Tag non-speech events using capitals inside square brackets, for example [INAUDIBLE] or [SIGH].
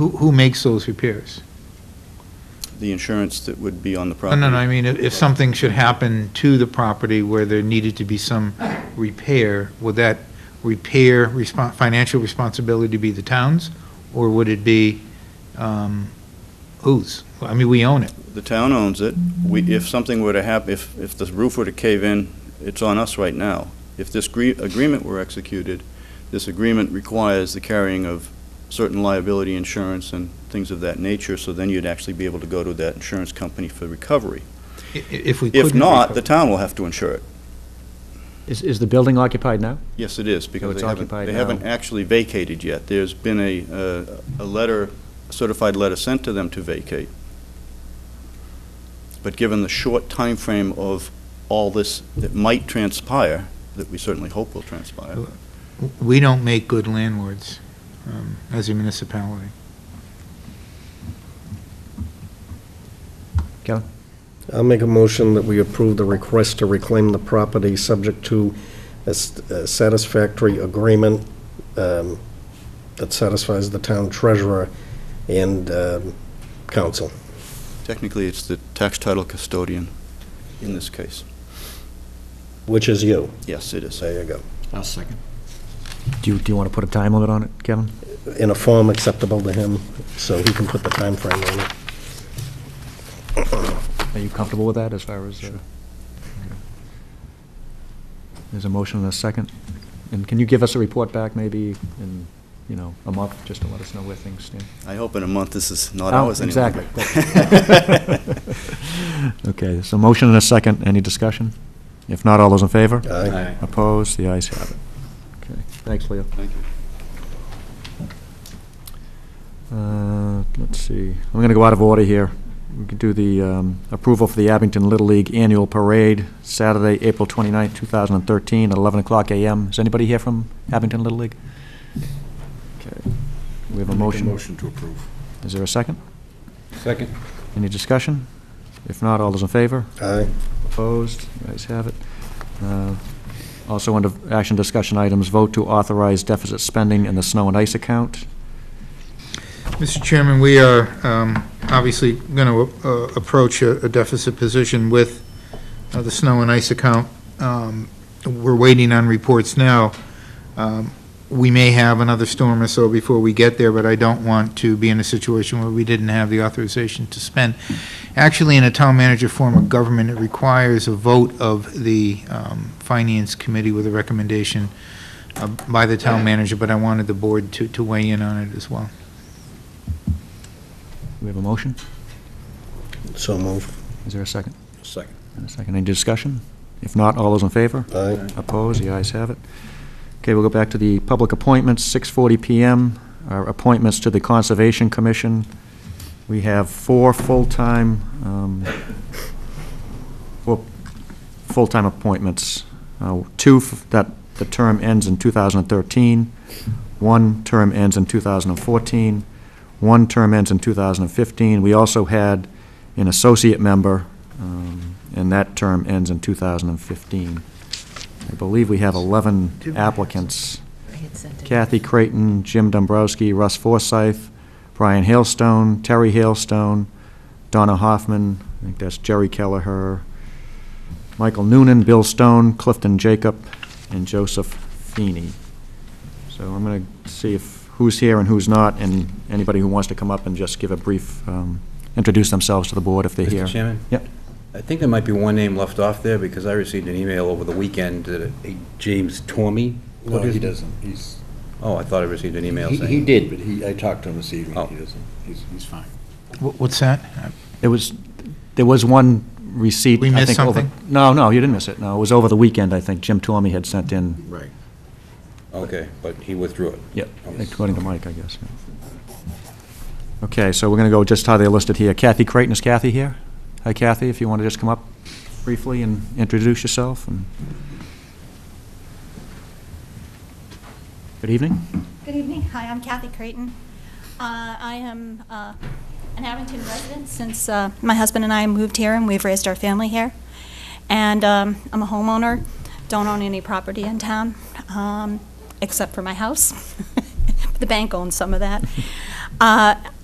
Who, who makes those repairs? The insurance that would be on the No, property. no, no, I mean, if, if something should happen to the property where there needed to be some repair, would that repair respon financial responsibility be the town's? Or would it be, um, whose? I mean, we own it. The town owns it. We, if something were to happen, if, if the roof were to cave in, it's on us right now. If this gre- agreement were executed, this agreement requires the carrying of certain liability insurance and things of that nature, so then you'd actually be able to go to that insurance company for recovery. I- i- If we couldn't. If not, recover- the town will have to insure it. Is, is the building occupied now? Yes, it is, because it's they haven't, occupied they now. haven't actually vacated yet. There's been a, uh, a letter, a certified letter sent to them to vacate. But given the short time frame of all this that might transpire, that we certainly hope will transpire, We don't make good landlords, um, as a municipality. Kevin? I'll make a motion that we approve the request to reclaim the property, subject to a s- a satisfactory agreement um, that satisfies the town treasurer and um, council. technically, it's the tax title custodian in this case. Which is you. Yes, it is. There you go. I'll second. Do you, do you want to put a time limit on it, Kevin? In a form acceptable to him, so he can put the time frame on it. Are you comfortable with that as far as? uh, okay. There's a motion and a second. And can you give us a report back maybe in, you know, a month, just to let us know where things stand? I hope in a month this is not Oh, ours any longer. exactly. [LAUGHS] [LAUGHS] Okay, so motion and a second. Any discussion? If not, all those in favor? Aye. Opposed? The ayes have it. Okay, thanks, Leo. Thank you. Uh, Let's see, I'm going to go out of order here. We can do the um, approval for the Abington Little League Annual Parade, Saturday, April 29th, 2013, at 11 o'clock a.m. Is anybody here from Abington Little League? Okay, we have a motion. Motion to approve. Is there a second? Second. Any discussion? If not, all those in favor? Aye. Opposed? The ayes have it. Uh, Also, under action discussion items, vote to authorize deficit spending in the snow and ice account. Mr. Chairman, we are um, obviously going to approach a a deficit position with uh, the snow and ice account. Um, We're waiting on reports now. Um, We may have another storm or so before we get there, but I don't want to be in a situation where we didn't have the authorization to spend. Actually, in a town manager form of government, it requires a vote of the um, Finance Committee with a recommendation uh, by the town manager, but I wanted the board to to weigh in on it as well. We have a motion? So move. Is there a second? Second. And a second, any discussion? If not, all those in favor? Aye. Opposed, the ayes have it. Okay, we'll go back to the public appointments, 6:40 PM, our appointments to the Conservation Commission. We have four full-time, um, four full-time appointments, Uh, two f- that the term ends in 2013, one term ends in 2014, one term ends in 2015. We also had an associate member, um, and that term ends in 2015. I believe we have 11 applicants. I had sent it. Kathy Creighton, Jim Dombrowski, Russ Forsyth, Brian Hailstone, Terry Hailstone, Donna Hoffman, I think that's Jerry Kelleher, Michael Noonan, Bill Stone, Clifton Jacob, and Joseph Feeney. So I'm going to see if, who's here and who's not, and anybody who wants to come up and just give a brief, um, introduce themselves to the board if they're here. Mr. Chairman? Yep. I think there might be one name left off there, because I received an email over the weekend that a James Tormy. No, he doesn't. He's, Oh, I thought I received an email he saying. he did, but he, I talked to him this Oh. evening. He doesn't, he's, he's fine. Wh- What's that? There was, there was one receipt. We I missed think, over- something? No, no, you didn't miss it. No, it was over the weekend, I think. Jim Tormy had sent in Right. Okay, but he withdrew it. Yep, Okay. according to Mike, I guess. yeah. Okay, so we're going to go just how they're listed here. Kathy Creighton, is Kathy here? Hi Kathy, if you want to just come up briefly and introduce yourself. and- Good evening. Good evening. Hi, I'm Kathy Creighton. Uh, I am uh, an Abington resident since uh, my husband and I moved here and we've raised our family here. And um, I'm a homeowner, don't own any property in [LAUGHS] town, um, except for my house. The bank owns some of that. Uh,